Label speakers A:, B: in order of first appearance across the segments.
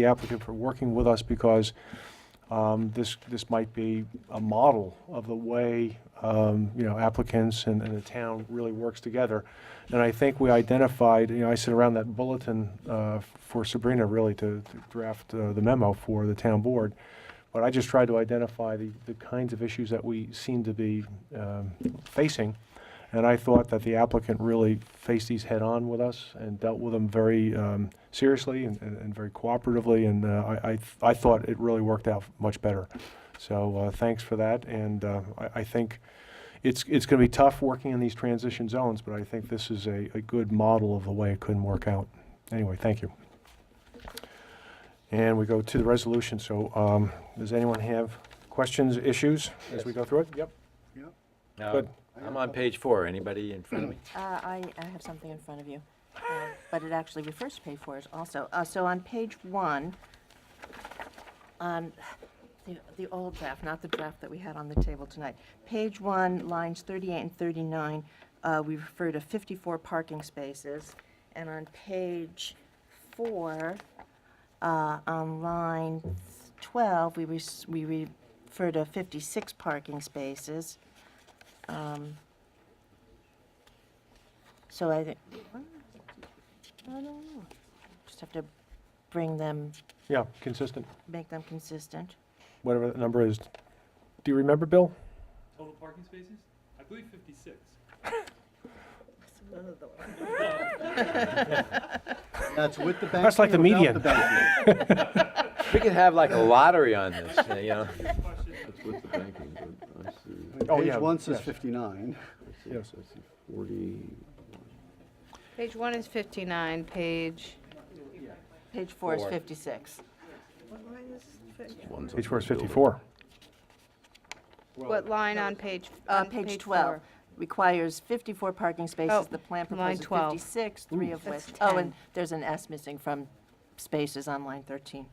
A: the applicant for working with us because um, this, this might be a model of the way, um, you know, applicants and, and the town really works together. And I think we identified, you know, I sent around that bulletin uh, for Sabrina really to to draft uh, the memo for the town board. But I just tried to identify the, the kinds of issues that we seem to be um, facing. And I thought that the applicant really faced these head-on with us and dealt with them very um, seriously and, and and very cooperatively, and uh, I, I th- I thought it really worked out much better. So uh, thanks for that, and uh, I, I think it's, it's going to be tough working in these transition zones, but I think this is a, a good model of the way it couldn't work out. Anyway, thank you. And we go to the resolution, so um, does anyone have questions, issues, as we go through it? Yep.
B: Now,
A: Good.
B: Uh, I'm on page four. Anybody in front of me?
C: Uh, I, I have something in front of you, uh, but it actually refers to page four is also. Uh, So on page one, on the, the old draft, not the draft that we had on the table tonight, page one, lines 38 and 39, uh, we refer to 54 parking spaces. And on page four, uh, on line 12, we res- we refer to 56 parking spaces. Um, so I think, I don't know. Just have to bring them,
A: Yeah, consistent,
C: make them consistent.
A: whatever that number is. Do you remember, Bill?
D: Total parking spaces? I believe fifty-six.
E: That's with the bank.
A: That's like the
E: fee or
A: median.
E: without the bank fee?
B: We could have like a lottery on this, uh, you know?
D: Question,
F: That's with the banking, but I see,
A: Oh, yeah,
E: Page one says
A: yes.
E: 59.
F: I see, I
A: Yes.
F: see forty,
G: Page one is 59, page,
C: Page four is
B: Four.
C: 56.
F: one's.
A: Page four is 54.
G: what line on page?
C: Uh,
G: on
C: Page
G: four?
C: 12 requires 54 parking
G: Oh,
C: spaces. The plan
G: line
C: proposes
G: 12.
C: 56, three of which.
G: That's
C: Oh, and
G: 10.
C: there's an S missing from spaces on line 13.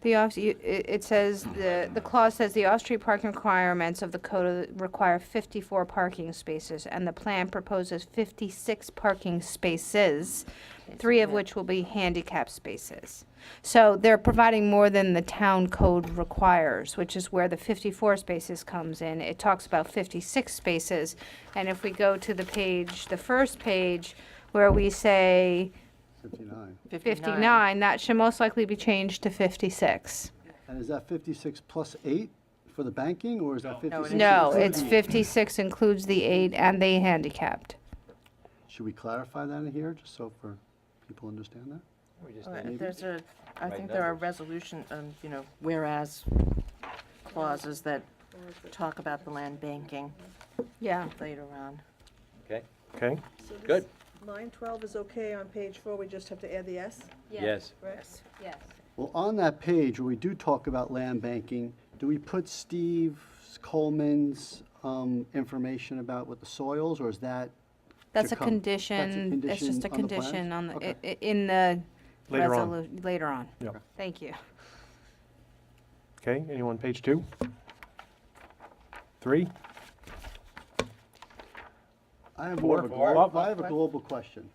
G: The off, you- it it says, the the clause says the off-street parking requirements of the code of- require 54 parking spaces, and the plan proposes 56 parking spaces, three of
C: yeah.
G: which will be handicap spaces. So they're providing more than the town code requires, which is where the 54 spaces comes in. It talks about 56 spaces, and if we go to the page, the first page, where we say
E: 59.
G: 59, that should most likely be changed to 56.
E: And is that 56 plus 8 for the banking, or is that 56?
G: No,
E: including
G: it's
E: eight?
G: 56 includes the eight and the handicapped.
E: Should we clarify that in here, just so for people understand that?
B: We just
C: Oh,
B: need-
C: and There's a, I
B: Right
C: think there are
B: numbers.
C: resolution, um, you know, whereas clauses that talk about the land banking
G: Yeah.
C: later on.
B: Okay,
A: Okay,
H: So this-
B: Good.
H: Line 12 is okay on page four, we just have to add the S,
B: yes.
H: right?
G: yes.
E: Well, on that page, where we do talk about land banking, do we put Steve Coleman's um, information about what the soils, or is that?
G: That's a
E: come. That's a
G: condition, it's just a
E: on the plans?
G: condition on, the
E: Okay.
G: i- i- in the.
A: Later on.
G: resolu- Later on.
A: Yep.
G: Thank you.
A: okay, anyone, page two? Three?
E: I have more of a
B: Four.
E: glo- I have a global question.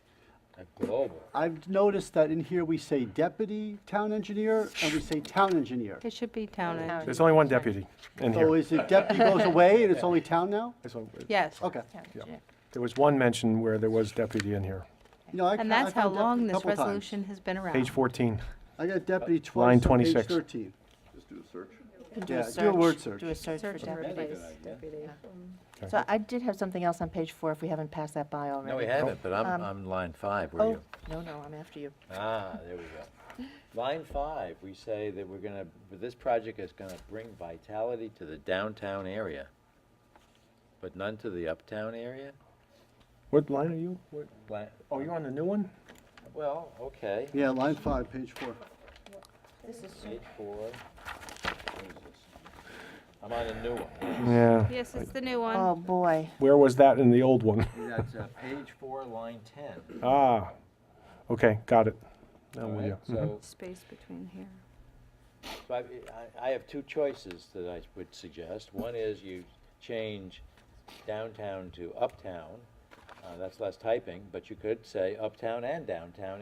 B: A Global.
E: I've noticed that in here, we say deputy town engineer, and we say town engineer.
G: It should be town
C: Town.
A: There's only one deputy in
E: So
A: here.
E: is it deputy goes away and it's only town now?
A: There's only-
G: Yes.
E: Okay.
A: There was one mention where there was deputy in here.
E: You know, I
G: And
E: ca- I
G: that's how
E: found deputy
G: long
E: a
G: this
E: couple times.
G: resolution has been around.
A: Page 14.
E: I got deputy
A: Uh, Line
E: twice on page
A: 26.
E: 13.
F: Just do a search.
C: You can do
E: Yeah,
C: a
E: do a
C: search.
E: word search.
C: Do a search for
G: Search for
C: deputies.
G: deputies.
H: Deputy.
C: So I did have something else on page four, if we haven't passed that by already.
B: No, we haven't, but I'm,
C: Um,
B: I'm line five, were
C: Oh,
B: you?
C: no, no, I'm after you.
B: Ah, there we go. Line five, we say that we're gonna, this project is gonna bring vitality to the downtown area, but none to the uptown area?
A: What line are you? What-
B: Li-
A: Oh, you're on the new one?
B: Well, okay.
E: Yeah, line five, page four.
B: Page four. What is this? I'm on a new one.
A: Yeah.
G: Yes, it's the new one.
E: Um,
C: Oh, boy.
A: Where was that in the old one?
B: That's uh, page four, line ten.
A: Ah, okay, got it. Now
B: All
A: with
B: right, mm-hmm.
A: you. Mhm.
B: So
G: Space between here.
B: So I, I- I have two choices that I would suggest. One is you change downtown to uptown, Uh, That's less typing, but you could say uptown and downtown